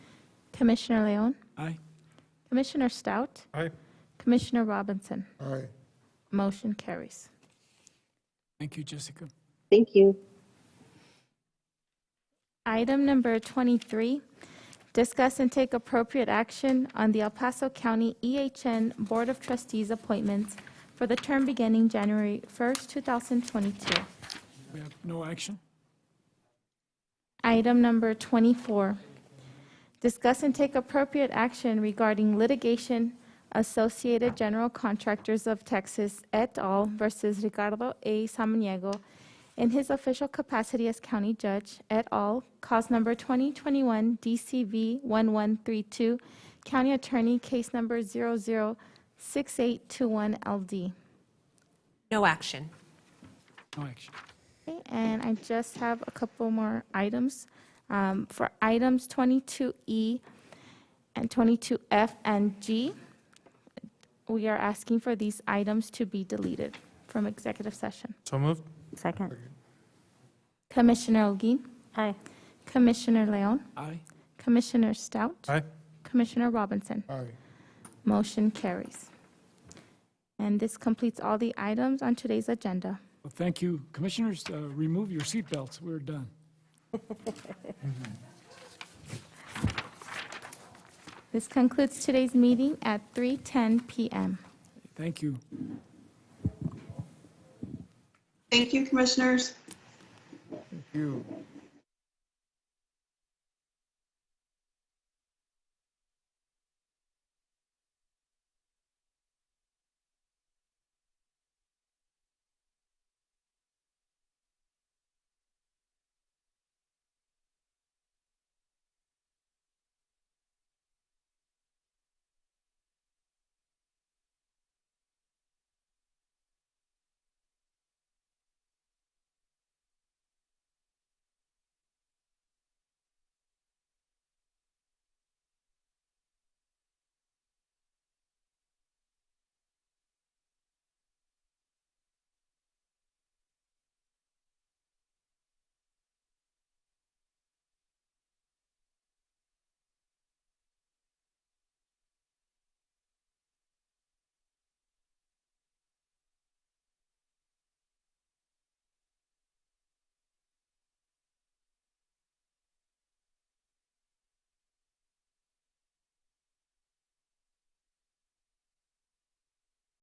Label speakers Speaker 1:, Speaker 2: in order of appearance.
Speaker 1: Commissioner Leon,
Speaker 2: Aye.
Speaker 1: Commissioner Stout,
Speaker 3: Aye.
Speaker 1: Commissioner Robinson.
Speaker 3: Aye.
Speaker 1: Motion carries.
Speaker 2: Thank you, Jessica.
Speaker 4: Thank you.
Speaker 1: Item number 23, discuss and take appropriate action on the El Paso County EHN Board of Trustees appointments for the term beginning January 1st, 2022.
Speaker 2: We have no action.
Speaker 1: Item number 24, discuss and take appropriate action regarding litigation Associated General Contractors of Texas et al. versus Ricardo A. Samaniego in his official capacity as county judge et al., cause number 2021 DCV 1132, county attorney, case number 006821LD.
Speaker 5: No action.
Speaker 2: No action.
Speaker 1: Okay, and I just have a couple more items. Um, For items 22E and 22F and G, we are asking for these items to be deleted from executive session.
Speaker 3: So moved.
Speaker 6: Second.
Speaker 1: Commissioner Olguin,
Speaker 6: Aye.
Speaker 1: Commissioner Leon,
Speaker 2: Aye.
Speaker 1: Commissioner Stout,
Speaker 3: Aye.
Speaker 1: Commissioner Robinson.
Speaker 3: Aye.
Speaker 1: Motion carries. And this completes all the items on today's agenda.
Speaker 2: Well, thank you. Commissioners, uh, remove your seatbelts. We're done.
Speaker 1: This concludes today's meeting at 3:10 PM.
Speaker 2: Thank you.
Speaker 7: Thank you, commissioners.
Speaker 3: You.